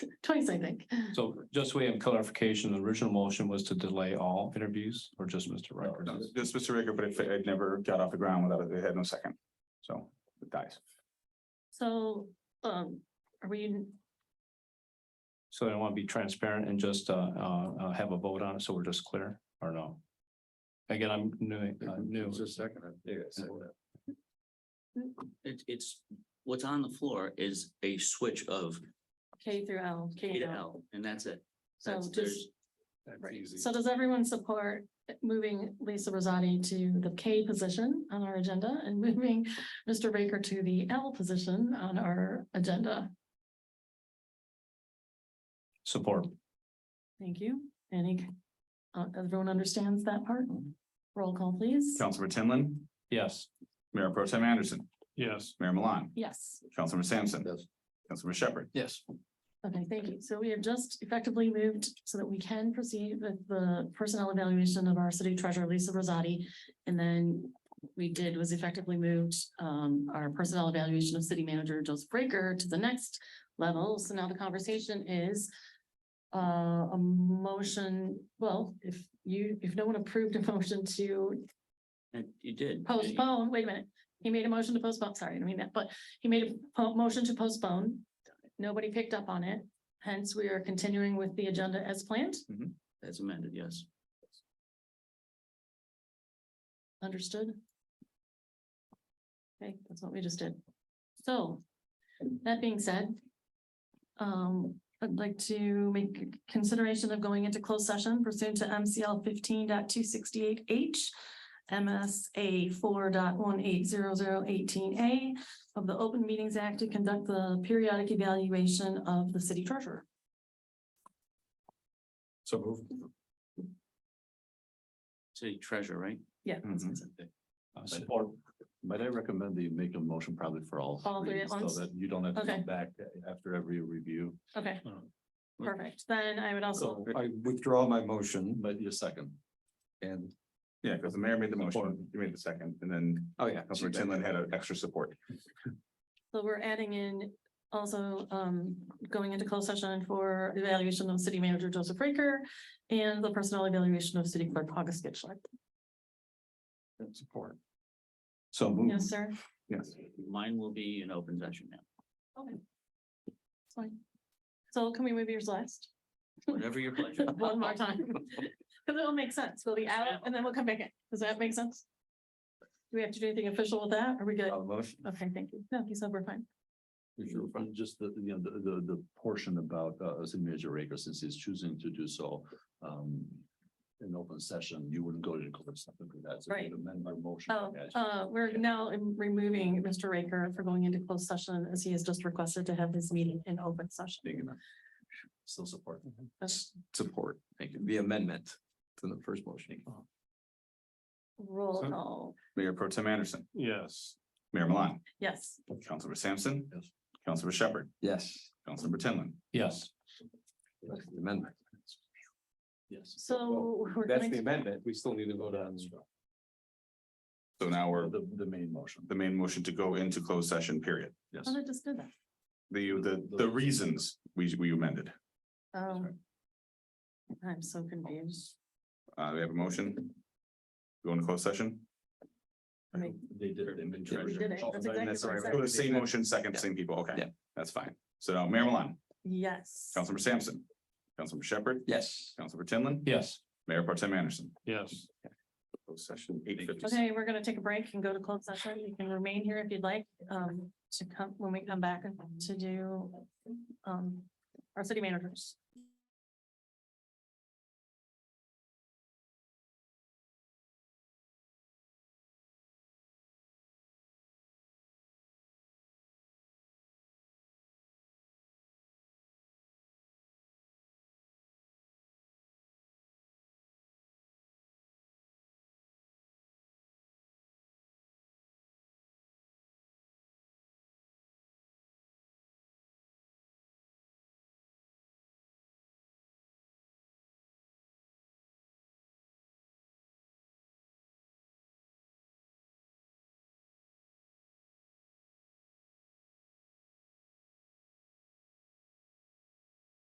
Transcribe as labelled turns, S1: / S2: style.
S1: twice, I think.
S2: So just so we have clarification, the original motion was to delay all interviews or just Mr.
S3: No,
S2: Riker?
S3: just- Just Mr. Ricker, but it, it never got off the ground without it, it had no second, so it dies.
S1: So, um, are we,
S2: So I want to be transparent and just uh uh uh, have a vote on it, so we're just clear or no? Again, I'm new, uh, new.
S4: Just a second.
S5: It's, it's, what's on the floor is a switch of
S1: K through L,
S5: K
S1: K
S5: to
S1: to L?
S5: L, and that's it.
S1: So
S5: That's-
S1: just,
S5: there's-
S1: right, so does everyone support moving Lisa Rosati to the K position on our agenda and moving Mr. Baker to the L position on our agenda?
S2: Support.
S1: Thank you. Any, uh, everyone understands that part? Roll call, please.
S3: Councilmember Tinlin,
S2: Yes.
S3: Mayor Pro Tem Anderson,
S2: Yes.
S3: Mayor Milan,
S1: Yes,
S3: Councilmember Sampson,
S4: Yes.
S3: Councilmember Shepherd.
S2: Yes.
S1: okay, thank you. So we have just effectively moved so that we can proceed with the personnel evaluation of our city treasurer, Lisa Rosati. And then we did was effectively moved um our personnel evaluation of city manager Joseph Breaker to the next level. So now the conversation is uh, a motion, well, if you, if no one approved a motion to
S5: and You did.
S1: postpone, wait a minute, he made a motion to postpone, sorry, I didn't mean that, but he made a po- motion to postpone. Nobody picked up on it, hence we are continuing with the agenda as planned,
S5: That's amended, yes.
S1: understood? Okay, that's what we just did. So, that being said, um, I'd like to make consideration of going into closed session pursuant to MCL 15.268 H, MSA 4.180018 A of the Open Meetings Act to conduct the periodic evaluation of the city treasurer.
S4: So move.
S5: City treasurer, right?
S1: Yeah. that's what I said.
S4: Mm-hmm.
S2: Support.
S4: Might I recommend that you make a motion probably for all?
S1: All three at
S4: so
S1: once?
S4: That you don't have to
S1: Okay.
S4: come back after every review.
S1: Okay,
S5: Mm.
S1: perfect. Then I would also,
S4: So I withdraw my motion, but your second. And,
S3: Yeah, because the mayor made the
S4: Support.
S3: motion, you made the second, and then
S4: oh, yeah.
S3: Councilmember Tinlin had an extra support.
S1: so we're adding in also um going into closed session for evaluation of city manager Joseph Raker and the personnel evaluation of city clerk August Gitschler.
S4: Support. So move.
S1: Yes, sir.
S3: Yes.
S5: Mine will be an open session now.
S1: Okay. It's fine. So can we move yours last?
S5: Whatever your pleasure.
S1: One more time. Cause it'll make sense. We'll be out and then we'll come back in. Does that make sense? Do we have to do anything official with that? Are we good?
S4: Uh, motion.
S1: Okay, thank you. No, he said we're fine.
S4: Sure, and Just the, you know, the, the, the portion about, uh, city manager Raker, since he's choosing to do so, um. In open session, you wouldn't go to the closed session for that. so
S1: Right.
S4: you'd Amend my motion.
S1: Oh, uh, we're now removing Mr. Raker for going into closed session as he has just requested to have his meeting in open session.
S4: Big enough. Still support.
S1: That's-
S4: Support, thank you, the amendment to the first motion.
S1: Roll
S2: So-
S1: call,
S3: Mayor Pro Tem Anderson,
S2: Yes.
S3: Mayor Milan,
S1: yes.
S3: Councilmember Sampson,
S4: Yes.
S3: Councilmember Shepherd,
S4: Yes.
S3: Councilmember Tinlin.
S2: Yes.
S4: Amendment. Yes.
S1: So we're going to,
S4: amendment, we still need to vote on.
S3: So now we're,
S4: The, the main motion.
S3: the main motion to go into closed session, period.
S4: Yes.
S1: oh, I just did that.
S3: The, the, the reasons we, we amended.
S1: Oh. I'm so confused.
S3: Uh, we have a motion. Go into closed session.
S1: Make-
S4: They did it. in
S3: Yeah, we
S1: did it. That's exactly
S3: That's
S1: what I
S3: right.
S1: said.
S3: So The same motion, second, same people.
S4: Yeah.
S3: Okay, that's fine. So now Mayor Milan,
S1: Yes.
S3: Councilmember Sampson, Councilmember Shepherd,
S4: Yes.
S3: Councilmember Tinlin,
S2: Yes.
S3: Mayor Pro Tem Anderson.
S2: Yes.
S3: Closed session eight fifty.
S1: Okay, we're gonna take a break and go to closed session. You can remain here if you'd like, um, to come, when we come back to do, um, our city managers.